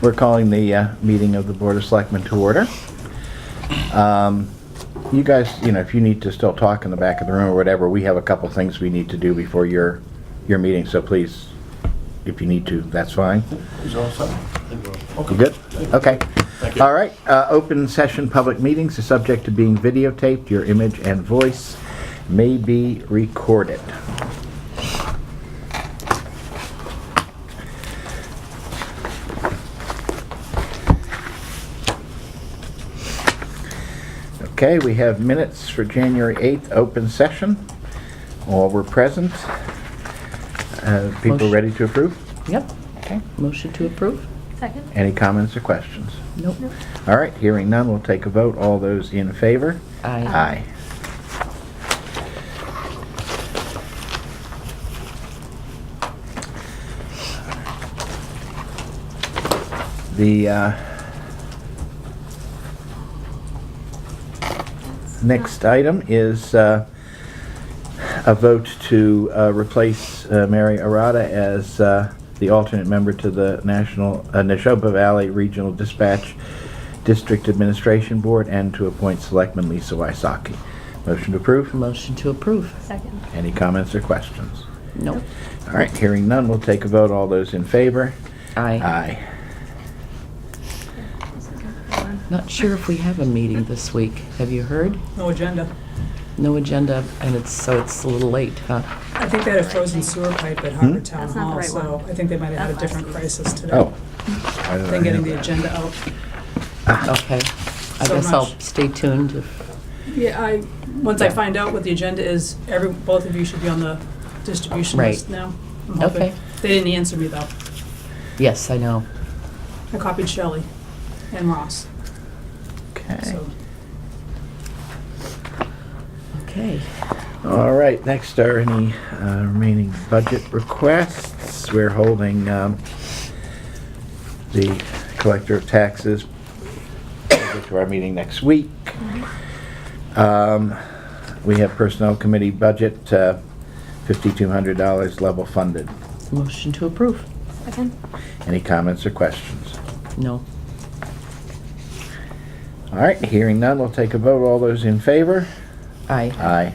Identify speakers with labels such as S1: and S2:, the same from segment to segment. S1: We're calling the uh, meeting of the Board of Selectmen to order. Um, You guys, you know, if you need to still talk in the back of the room or whatever, we have a couple things we need to do before your, your meeting, so please, if you need to, that's fine.
S2: Is all set?
S1: You good? Okay.
S2: Thank you.
S1: All right, uh, open session, public meetings is subject to being videotaped. Your image and voice may be recorded. Okay, we have minutes for January 8th, open session. All were present. Uh, People
S3: Motion-
S1: ready to approve?
S3: Yep,
S1: Okay.
S3: motion to approve?
S4: Second?
S1: Any comments or questions?
S3: Nope.
S1: All right, hearing none, we'll take a vote. All those in favor? Aye.
S3: Aye.
S1: The uh, next item is uh, a vote to uh, replace uh, Mary Arada as uh, the alternate member to the National, uh, Neshoba Valley Regional Dispatch District Administration Board and to appoint Selectman Lisa Wysocki. Motion to approve.
S3: Motion to approve?
S4: Second.
S1: Any comments or questions?
S3: Nope.
S1: All right, hearing none, we'll take a vote. All those in favor?
S3: Aye.
S1: Aye.
S3: Not sure if we have a meeting this week. Have you heard?
S5: No agenda.
S3: No agenda, and it's, so it's a little late, Uh, huh?
S5: I think they had a frozen sewer pipe at Harvard Town
S4: That's not the
S5: Hall,
S4: right
S5: so
S4: one.
S5: I think they might have had a
S4: That
S5: different
S4: last
S5: crisis today.
S1: Oh. I Ah. don't
S5: Than getting
S1: know.
S5: the agenda out.
S3: Okay. I
S5: So
S3: guess I'll
S5: much.
S3: stay tuned if,
S5: Yeah, I, once I find out what the agenda is, every, both of you should be on the distribution
S3: Right.
S5: list now. I'm hoping.
S3: Okay.
S5: They didn't answer me though.
S3: yes, I know.
S5: I copied Shelley and Ross,
S1: Okay.
S5: so.
S3: Okay.
S1: All right, next are any uh, remaining budget requests. We're holding um, the collector of taxes to our meeting next week. Um, We have personnel committee budget, uh, $5,200 level funded.
S3: Motion to approve?
S4: Second?
S1: Any comments or questions?
S3: No.
S1: All right, hearing none, we'll take a vote. All those in favor?
S3: Aye.
S1: Aye.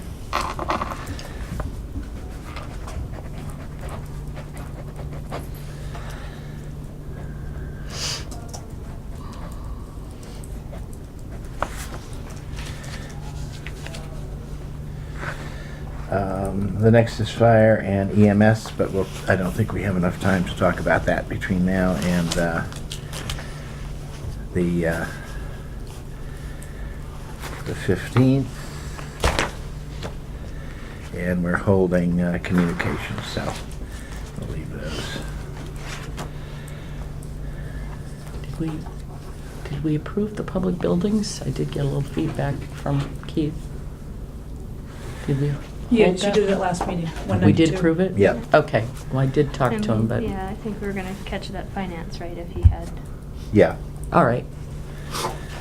S1: Um, The next is fire and EMS, but we'll, I don't think we have enough time to talk about that between now and uh, the uh, the 15th. And we're holding uh, communications, so we'll leave those.
S3: Did we, did we approve the public buildings? I did get a little feedback from Keith. Did we?
S5: Yeah,
S3: hold
S5: she
S3: that?
S5: did it at last meeting, one
S3: We
S5: ninety-two.
S3: did approve it?
S1: Yeah.
S3: Okay, well, I did talk to him,
S4: And,
S3: but,
S4: Yeah, I think we were gonna catch that finance right if he had.
S1: Yeah,
S3: all right.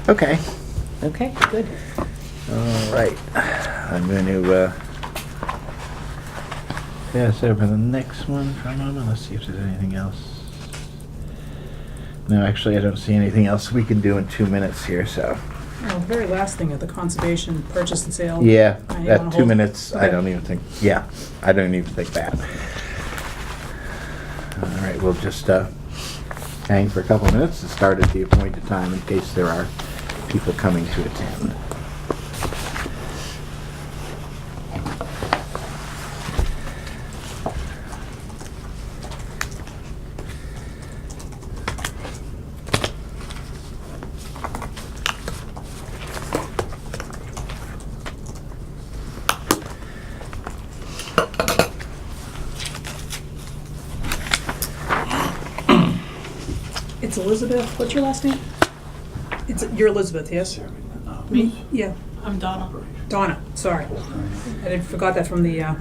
S1: okay.
S3: Okay, good.
S1: All right. I'm going to uh, pass over the next one for a moment. Let's see if there's anything else. No, actually, I don't see anything else we can do in two minutes here, so.
S5: Oh, very last thing at the conservation purchase and sale.
S1: Yeah,
S5: I wanna
S1: that two
S5: hold-
S1: minutes, I
S5: Okay.
S1: don't even think, yeah, I don't even think that. All right, we'll just uh, hang for a couple of minutes and start at the appointed time in case there are people coming to attend.
S5: It's Elizabeth, what's your last name? It's, you're Elizabeth, yes? Me? Yeah. I'm Donna. Donna, sorry. I did, forgot that from the, uh,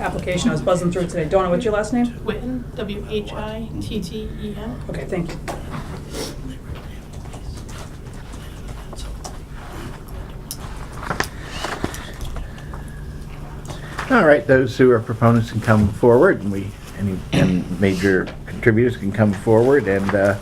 S5: application, I was buzzing through it today. Donna, what's your last name?
S6: Witten,
S5: E
S6: W-H-I-T-T-E-N.
S5: Okay, thank you.
S1: All right, those who are proponents can come forward, and we, any and major contributors can come forward and uh,